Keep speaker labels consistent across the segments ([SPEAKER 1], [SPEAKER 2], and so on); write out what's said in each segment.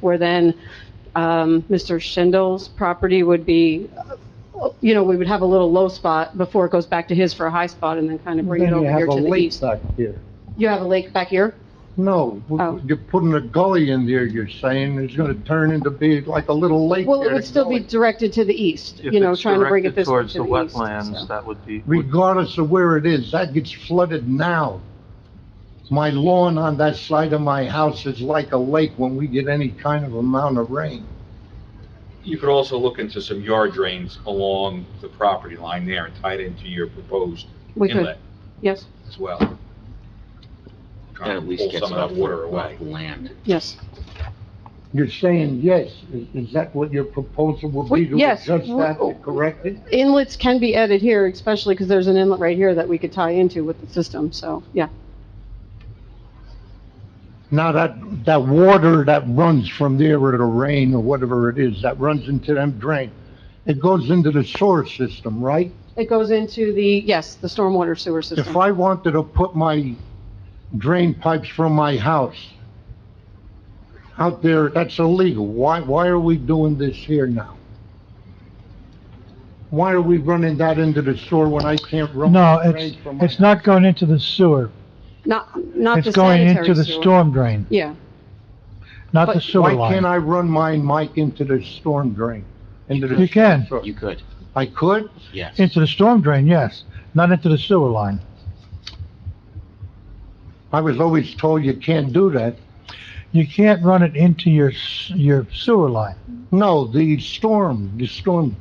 [SPEAKER 1] where then um, Mr. Schindel's property would be, uh, you know, we would have a little low spot before it goes back to his for a high spot and then kind of bring it
[SPEAKER 2] Then
[SPEAKER 1] over
[SPEAKER 2] you
[SPEAKER 1] here
[SPEAKER 2] have a
[SPEAKER 1] to the
[SPEAKER 2] lake
[SPEAKER 1] east.
[SPEAKER 2] back here.
[SPEAKER 1] You have a lake back here?
[SPEAKER 2] No,
[SPEAKER 1] Oh.
[SPEAKER 2] you're putting a gully in there, you're saying, it's gonna turn into be like a little lake
[SPEAKER 1] Well, it
[SPEAKER 2] there,
[SPEAKER 1] would still be
[SPEAKER 2] gully.
[SPEAKER 1] directed to the east, you know, trying to bring it this way to the east.
[SPEAKER 3] Towards the wetlands,
[SPEAKER 1] so.
[SPEAKER 3] that would be, would-
[SPEAKER 2] Regardless of where it is, that gets flooded now. My lawn on that side of my house is like a lake when we get any kind of amount of rain.
[SPEAKER 4] You could also look into some yard drains along the property line there and tie it into your proposed
[SPEAKER 1] We could,
[SPEAKER 4] inlet
[SPEAKER 1] yes,
[SPEAKER 4] as well.
[SPEAKER 5] That at least gets
[SPEAKER 4] Pull some
[SPEAKER 5] off
[SPEAKER 4] of that water away.
[SPEAKER 5] the land.
[SPEAKER 1] yes.
[SPEAKER 2] You're saying yes, is, is that what your proposal would
[SPEAKER 1] We-
[SPEAKER 2] be to
[SPEAKER 1] yes,
[SPEAKER 2] adjust that,
[SPEAKER 1] we-
[SPEAKER 2] to correct it?
[SPEAKER 1] Inlets can be added here, especially because there's an inlet right here that we could tie into with the system, so, yeah.
[SPEAKER 2] Now, that, that water that runs from there or the rain or whatever it is, that runs into them drain, it goes into the sewer system, right?
[SPEAKER 1] It goes into the, yes, the stormwater sewer
[SPEAKER 2] If
[SPEAKER 1] system.
[SPEAKER 2] I wanted to put my drain pipes from my house out there, that's illegal. Why, why are we doing this here now? Why are we running that into the sewer when I can't run?
[SPEAKER 6] No,
[SPEAKER 2] my
[SPEAKER 6] it's,
[SPEAKER 2] drain from my
[SPEAKER 6] it's not going into the sewer.
[SPEAKER 1] Not, not the
[SPEAKER 6] It's going into
[SPEAKER 1] sanitary
[SPEAKER 6] the
[SPEAKER 1] sewer.
[SPEAKER 6] storm drain,
[SPEAKER 1] Yeah,
[SPEAKER 6] not the
[SPEAKER 1] But
[SPEAKER 6] sewer
[SPEAKER 2] Why can't
[SPEAKER 6] line.
[SPEAKER 2] I run mine, Mike, into the storm drain? Into the
[SPEAKER 6] You can.
[SPEAKER 2] sewer?
[SPEAKER 5] You could,
[SPEAKER 2] I could?
[SPEAKER 5] yes.
[SPEAKER 6] Into the storm drain, yes, not into the sewer line.
[SPEAKER 2] I was always told you can't do that.
[SPEAKER 6] You can't run it into your, s- your sewer line.
[SPEAKER 2] No, the storm, the storm,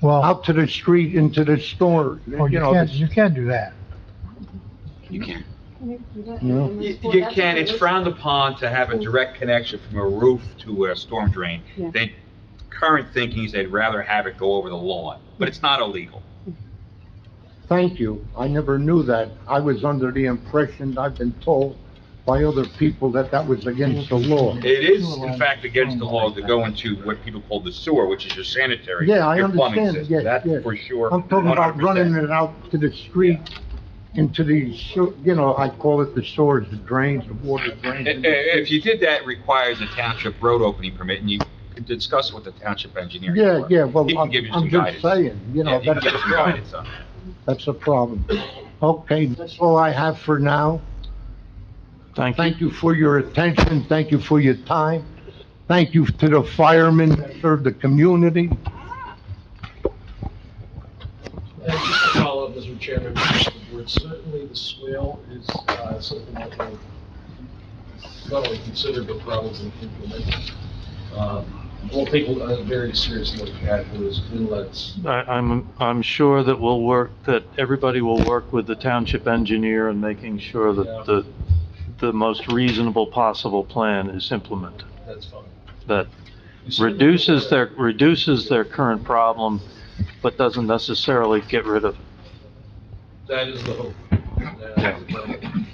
[SPEAKER 6] Well,
[SPEAKER 2] out to the street, into the store, you
[SPEAKER 6] well, Oh, you
[SPEAKER 2] know.
[SPEAKER 6] can't,
[SPEAKER 2] the-
[SPEAKER 6] you can't do that.
[SPEAKER 5] You can.
[SPEAKER 2] No.
[SPEAKER 4] You you can, it's frowned upon to have a direct connection from a roof to a storm drain.
[SPEAKER 1] Yeah.
[SPEAKER 4] They, current thinking is they'd rather have it go over the lawn, but it's not illegal.
[SPEAKER 2] Thank you. I never knew that. I was under the impression, I've been told by other people that that was against the law.
[SPEAKER 4] It is, in fact, against the law to go into what people call the sewer, which is your sanitary,
[SPEAKER 2] Yeah, I
[SPEAKER 4] your plumbing
[SPEAKER 2] understand.
[SPEAKER 4] system.
[SPEAKER 2] Yes,
[SPEAKER 4] That's
[SPEAKER 2] yes.
[SPEAKER 4] for sure.
[SPEAKER 2] I'm talking about
[SPEAKER 4] 100%.
[SPEAKER 2] running it out to the street, into the, sew- you know, I call it the sewers, the drains, the water drains.
[SPEAKER 4] I- i- If you did that, it requires a township road opening permit, and you could discuss it with the township engineer.
[SPEAKER 2] Yeah, yeah, well,
[SPEAKER 4] He can
[SPEAKER 2] I'm
[SPEAKER 4] give you
[SPEAKER 2] I'm
[SPEAKER 4] some
[SPEAKER 2] just
[SPEAKER 4] guidance.
[SPEAKER 2] saying, you
[SPEAKER 4] Yeah,
[SPEAKER 2] know,
[SPEAKER 4] he can
[SPEAKER 2] that's a
[SPEAKER 4] give you some
[SPEAKER 2] problem.
[SPEAKER 4] guidance on that.
[SPEAKER 2] That's a problem. Okay, that's all I have for now.
[SPEAKER 3] thank you.
[SPEAKER 2] Thank you for your attention, thank you for your time, thank you to the firemen that serve the community.
[SPEAKER 7] Thank you for follow up, Mr. Chairman, members of the board. Certainly, the swale is uh, something that we're not only considered, but probably implemented. Um, We'll take a very serious look at those inlets.
[SPEAKER 3] I, I'm, I'm sure that we'll work, that everybody will work with the township engineer in making sure
[SPEAKER 7] Yeah.
[SPEAKER 3] that the, the most reasonable possible plan is implemented,
[SPEAKER 7] That's fine.
[SPEAKER 3] that
[SPEAKER 7] You said-
[SPEAKER 3] reduces their, reduces their current problem, but doesn't necessarily get rid of it.
[SPEAKER 7] That is the hope. That is the plan.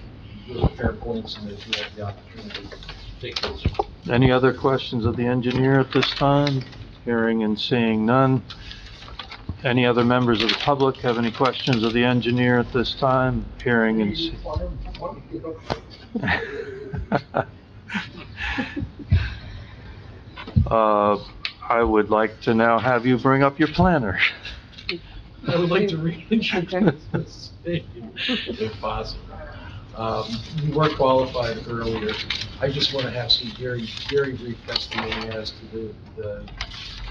[SPEAKER 7] Those are fair points, and if you have the opportunity, take those.
[SPEAKER 3] Any other questions of the engineer at this time? Hearing and seeing none. Any other members of the public have any questions of the engineer at this time? Hearing and see. Uh, I would like to now have you bring up your planner.
[SPEAKER 7] I would like to
[SPEAKER 1] Okay.
[SPEAKER 7] reintroduce this thing, if possible. Um, You were qualified earlier. I just want to have some very, very brief testimony as to the- the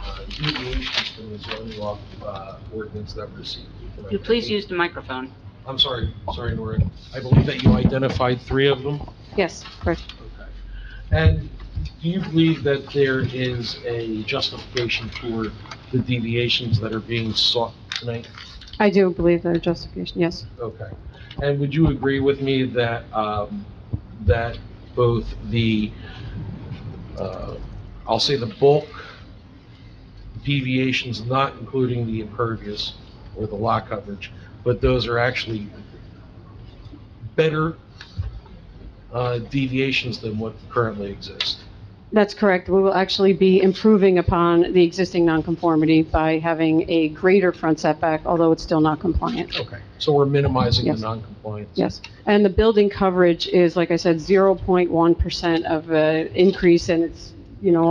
[SPEAKER 7] uh, deviations from the zoning law uh, ordinance that we're seeking.
[SPEAKER 8] Could you please use the microphone?
[SPEAKER 7] I'm sorry, sorry, Nora. I believe that you identified three of them.
[SPEAKER 1] yes, correct.
[SPEAKER 7] Okay. And do you believe that there is a justification for the deviations that are being sought tonight?
[SPEAKER 1] I do believe there are justification, yes.
[SPEAKER 7] Okay. And would you agree with me that, um, that both the, uh, I'll say the bulk deviations, not including the impervious or the lot coverage, but those are actually better, uh, deviations than what currently exists?
[SPEAKER 1] That's correct. We will actually be improving upon the existing nonconformity by having a greater front setback, although it's still not compliant.
[SPEAKER 7] Okay. So we're minimizing the
[SPEAKER 1] Yes.
[SPEAKER 7] noncompliance?
[SPEAKER 1] Yes. And the building coverage is, like I said, 0.1% of an increase, and it's you know,